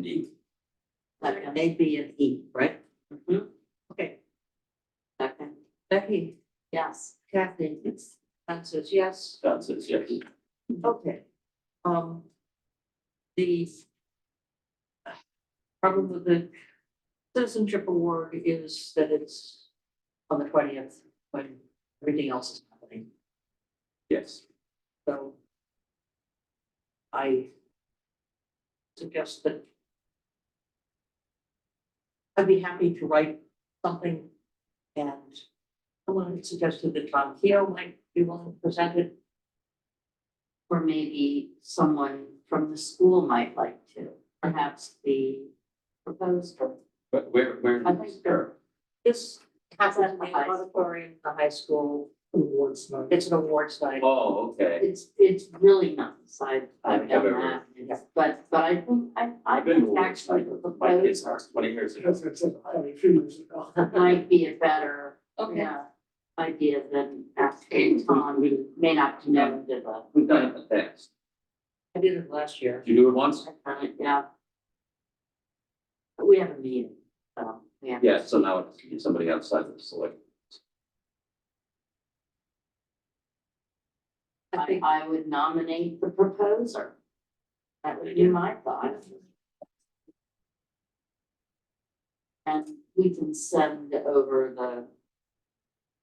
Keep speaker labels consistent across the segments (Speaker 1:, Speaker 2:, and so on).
Speaker 1: D.
Speaker 2: Like an A, B, and E, right? Mm-hmm. Okay. Second. Becky? Yes. Kathy? Yes. Anne says yes.
Speaker 1: Don says yes.
Speaker 2: Okay. Um. The. Problem with the citizenship award is that it's on the twentieth when everything else is happening,
Speaker 1: Yes.
Speaker 2: so. I. Suggest that. I'd be happy to write something and someone had suggested that Tom Keo might be willing to present it.
Speaker 3: Or maybe someone from the school might like to, perhaps the proposed or.
Speaker 1: But where, where?
Speaker 3: I think
Speaker 1: Sure.
Speaker 2: This happens in the
Speaker 3: High school.
Speaker 2: auditorium, at the high school. Awards night. It's an awards night.
Speaker 1: Oh, okay.
Speaker 3: It's, it's really nice, I, I've
Speaker 1: I've never-
Speaker 3: done that, It's- but, but I think, I, I
Speaker 1: I've been to
Speaker 3: think
Speaker 1: one,
Speaker 3: actually the
Speaker 1: like, My kids
Speaker 3: proposed
Speaker 1: are twenty years ago.
Speaker 4: Because it's oh. a highly famous.
Speaker 3: might be a better,
Speaker 2: Okay.
Speaker 3: yeah, idea than asking Tom, who may not know the,
Speaker 1: We've done it in the past.
Speaker 2: I did it last year.
Speaker 1: You do it once?
Speaker 3: I kind of, yeah.
Speaker 2: but We have a meeting.
Speaker 3: So, yeah.
Speaker 1: Yeah, so now it's somebody outside the select.
Speaker 2: I
Speaker 3: I,
Speaker 2: think
Speaker 3: I would nominate the proposer. That would be my thought. And we can send over the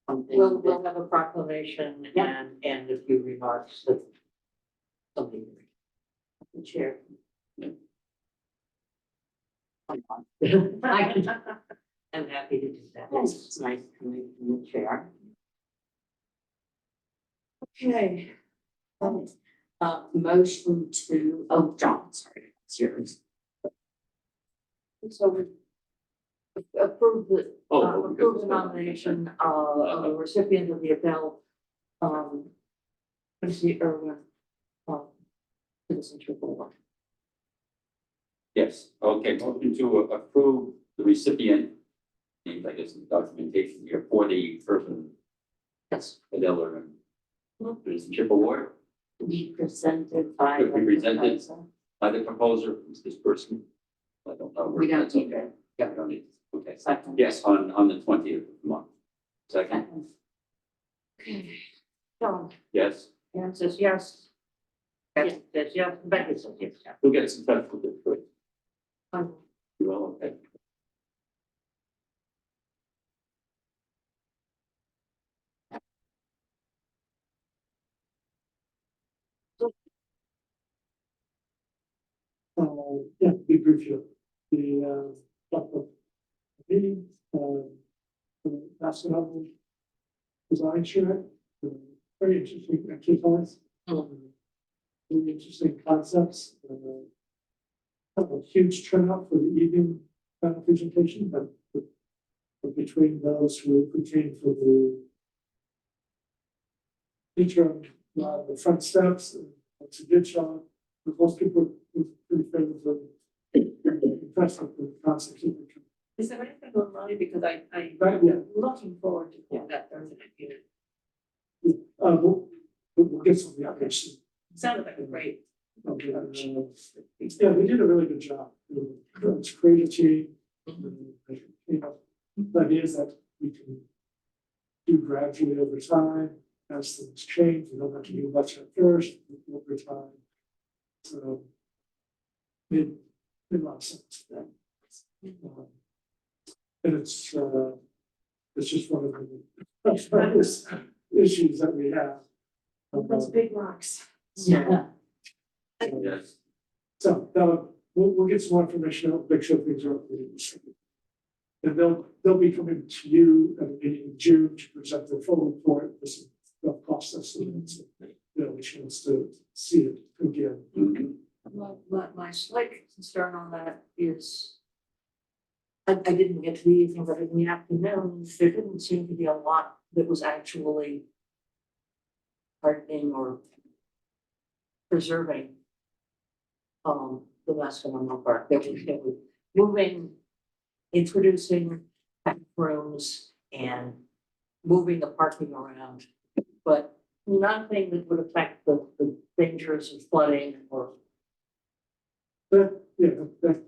Speaker 3: something
Speaker 2: we'll,
Speaker 3: that
Speaker 2: we'll have a proclamation
Speaker 3: Yeah.
Speaker 2: and, and a few remarks that somebody
Speaker 3: the chair.
Speaker 1: Yeah.
Speaker 2: I can, I'm happy to do that.
Speaker 3: It's nice coming from the chair.
Speaker 2: Okay.
Speaker 3: Uh, motion to, oh, John, sorry, it's yours.
Speaker 2: So we approve the,
Speaker 1: Oh,
Speaker 2: uh,
Speaker 1: well, because
Speaker 2: approve
Speaker 1: it's
Speaker 2: the
Speaker 1: been-
Speaker 2: nomination of of the recipient of the Abell, um, Quincy Irwin, um, Citizenship Award.
Speaker 1: Yes, okay, motion to approve the recipient, named, I guess, in the documentation here for the person,
Speaker 2: Yes.
Speaker 1: Adele or citizenship award
Speaker 3: To be presented by.
Speaker 1: To be
Speaker 3: the
Speaker 1: presented.
Speaker 3: proposer.
Speaker 1: by the proposer, who's this person? I don't know.
Speaker 3: We don't
Speaker 1: That's
Speaker 3: need
Speaker 1: okay.
Speaker 3: it.
Speaker 1: Yeah, we don't need, it. okay.
Speaker 3: Second.
Speaker 1: Yes, on, on the twentieth of the month. Second,
Speaker 3: Second.
Speaker 2: John,
Speaker 1: yes,
Speaker 2: Anne says yes.
Speaker 3: Yeah.
Speaker 2: Kathy says yes, Becky says yes.
Speaker 1: we'll get some time for this, but
Speaker 2: Um,
Speaker 1: you all, okay.
Speaker 4: Uh, yeah, big review, the, uh, top of the, uh, the national design chair, uh, very interesting exercise, Uh, very interesting concepts. uh, Have a huge turnout for the evening uh, presentation, but but between those who who came for the teacher, uh, the front steps, it's a good job, but most people were pretty favorable. Impressed with the concept.
Speaker 2: Is there anything online, because I, I
Speaker 4: Right, yeah,
Speaker 2: looking forward to doing that Thursday night meeting.
Speaker 4: uh, we'll, we'll- we'll get some of the others.
Speaker 2: Sounded like a great.
Speaker 4: Uh, Yeah, we did a really good job. It's creativity, you know, the idea is that we can do gradually over time, as things change, we don't have to do much at first, over time. So it, it lots of sense. Um, And it's, uh, it's just one of the tremendous issues that we have.
Speaker 2: Those big rocks.
Speaker 3: Yeah.
Speaker 4: Um,
Speaker 1: Yes,
Speaker 4: so, uh, we'll, we'll get some more information, out, make sure things are up to date. And they'll, they'll be coming to you at a meeting in June to present their full report, this is the process, and it's, you know, a chance to see it again.
Speaker 1: Mhm.
Speaker 2: My, my, my slight concern on that is. I, I didn't get to the evening, but in the afternoon, there didn't seem to be a lot that was actually. Hardening or. Preserving. Um, the Mascanoma Park, there was, there was moving, introducing back rooms and moving the parking around. But nothing that would affect the, the dangers of flooding or
Speaker 4: But, yeah, that,